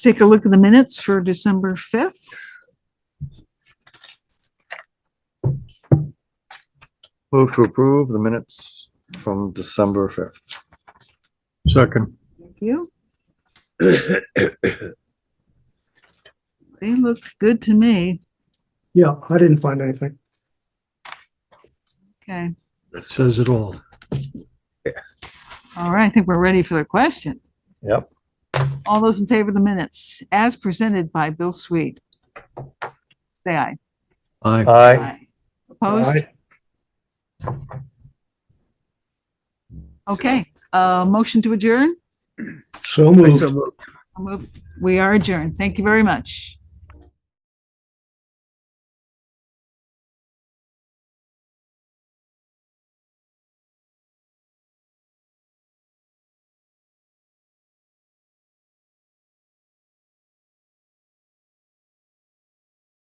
take a look at the minutes for December 5th. Move to approve the minutes from December fifth. Second. Thank you. They look good to me. Yeah, I didn't find anything. Okay. That says it all. All right. I think we're ready for the question. Yep. All those in favor of the minutes as presented by Bill Sweet? Say aye. Aye. Aye. Opposed? I- Okay. Uh, motion to adjourn? So moved. I'll move- We are adjourned. Thank you very much.